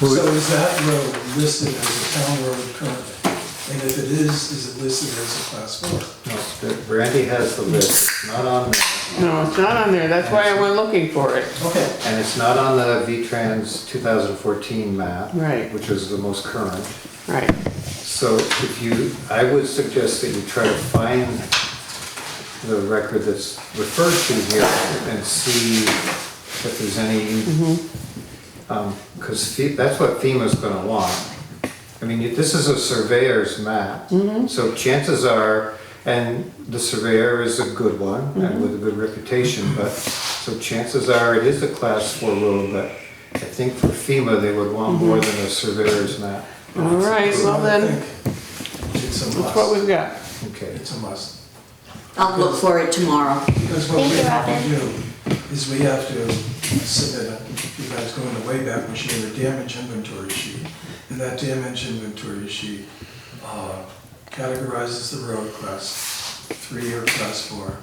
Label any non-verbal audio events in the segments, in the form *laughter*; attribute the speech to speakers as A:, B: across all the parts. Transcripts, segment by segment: A: Well, we-
B: So is that road listed as a town road currently? And if it is, is it listed as a class four?
C: No, Brandy has the list, it's not on there,
D: No, it's not on there, that's why I went looking for it.
B: Okay,
C: and it's not on the V-Trans 2014 map.
D: Right.
C: Which is the most current.
D: Right,
C: So if you, I would suggest that you try to find the record that's referred to here and see if there's any, um, cause Fe- that's what FEMA's gonna want. I mean, you- this is a surveyor's map, so chances are, and the surveyor is a good one and with a good reputation, but, so chances are it is a class four road, but I think for FEMA, they would want more than a surveyor's map.
D: all right, well then,
B: it's a
D: that's what
B: must,
D: we've got.
C: Okay.
B: it's a must.
E: I'll look for it tomorrow.
B: Because what we
F: Thank you,
B: have to do is we have to submit, a- you guys go in the Wayback Machine, a damage inventory sheet. And that damage inventory sheet uh, categorizes the road class three or class four.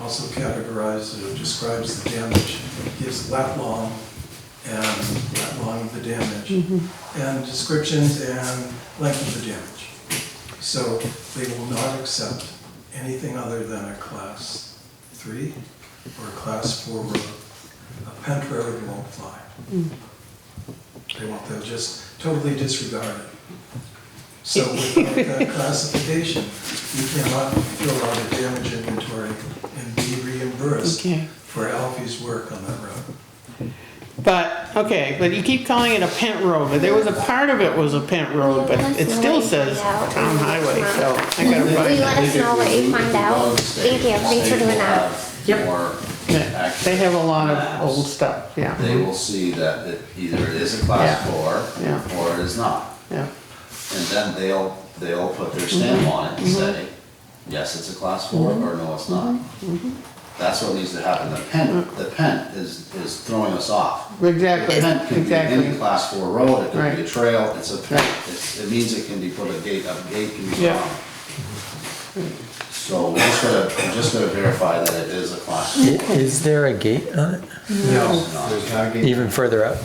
B: Also categorizes, or describes the damage, gives lat long and lat long of the damage. And descriptions and length of the damage. So they will not accept anything other than a class three or a class four road. A pent road won't fly. They won't, they'll just totally disregard it. So without that classification, you cannot fill out a damage inventory and be reimbursed
D: Okay.
B: for Alfie's work on that road.
D: But, okay, but you keep calling it a pent road, but there was a part of it was a pent road, but it still says town highway, so I gotta
F: Will you
D: find
F: let us know what you find out? Thank you, thanks for doing that.
E: Yep.
D: it. They have a lot of old stuff,
G: They
D: yeah,
G: will see that it either it is a class
D: Yeah. Yeah.
G: four or it is not.
D: yeah,
G: And then they'll, they'll put their
D: Mm-hmm.
G: stamp on it and say, yes, it's a class four, or no, it's not.
D: Mm-hmm.
G: That's what needs to happen. The pen, the pen is, is throwing us off. The
D: exactly,
G: pen can be any
D: exactly.
G: class four road, it can be
D: Right.
G: a trail, it's a pen.
D: Right.
G: It's- It means it can be put a gate, a gate can be put
D: Yeah.
G: on. So we're just gonna, we're just gonna verify that it is a class four.
A: Is there a gate on it,
C: No, there's not a gate.
A: even further up?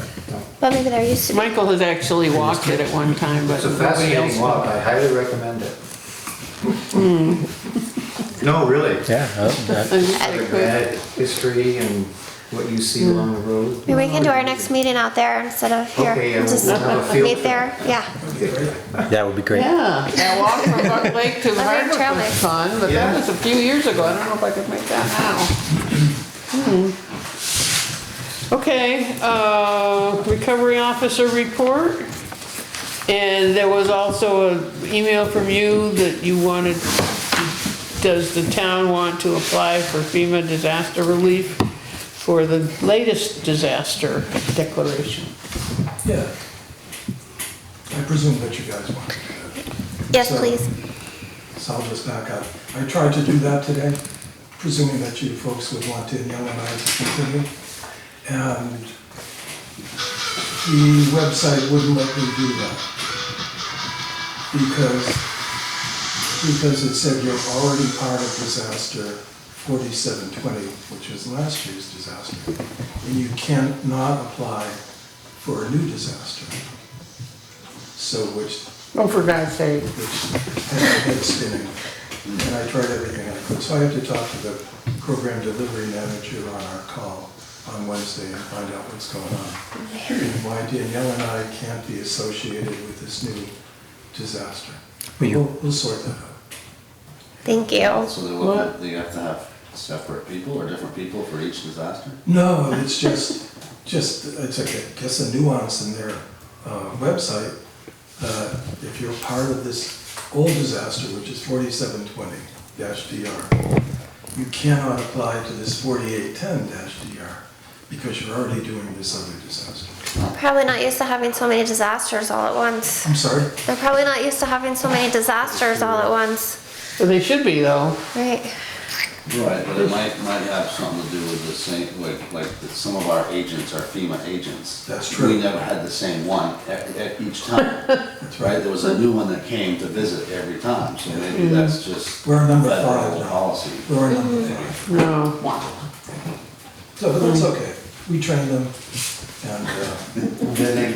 F: But maybe they're used to.
D: Michael has actually walked it at one time, but
C: It's a
D: nobody else.
C: fascinating walk, I highly recommend it. No, really.
A: Yeah. oh, that-
D: I wish I
C: The
D: could.
C: bad history and what you see along the road.
F: Maybe we can do our next meeting out there instead of here.
C: Okay, yeah,
F: Just
C: we'll have a field
F: meet
C: trip.
F: there, yeah.
A: That would be great.
D: Yeah, that walk from Buck Lake *laughs* to Hardwick
F: Leonard Trail
D: was
F: Mix.
D: fun, but that
C: Yeah.
D: was a few years ago, I don't know if I could make that now. Hmm. Okay, uh, recovery officer report. And there was also an email from you that you wanted, does the town want to apply for FEMA disaster relief for the latest disaster declaration?
B: Yeah. I presume that you guys want to do that.
F: Yes,
B: So-
F: please.
B: So I'll just back up. I tried to do that today, presuming that you folks would want Danielle and I to continue. And the website wouldn't let me do that. Because, because it said you're already part of disaster forty-seven twenty, which was last year's disaster. And you cannot apply for a new disaster. So which
D: Oh, for God's sake.
B: which had my head spinning, and I tried everything I could. So I had to talk to the program delivery manager on our call on Wednesday and find out what's going on. And why Danielle and I can't be associated with this new disaster. We'll, we'll sort that out.
F: Thank you.
G: So they will,
D: What?
G: do you have to have separate people or different people for each disaster?
B: No, it's just, just, it's like, I guess a nuance in their uh, website. Uh, If you're part of this old disaster, which is forty-seven twenty DR, you cannot apply to this forty-eight ten DR because you're already doing this other disaster.
F: Probably not used to having so many disasters all at once.
B: I'm sorry?
F: They're probably not used to having so many disasters all at once.
D: Well, They should be though.
F: Right.
G: Right. But it might, might have something to do with the same, like, like that some of our agents are FEMA agents.
B: That's true.
G: We never had the same one at, at each time, right? There was a new one that came to visit every time, so maybe that's just.
B: We're number
G: that
B: five
G: old
B: now.
G: Policy.
B: We're on number five.
D: No.
B: So that's okay. We train them and, uh,
C: Then they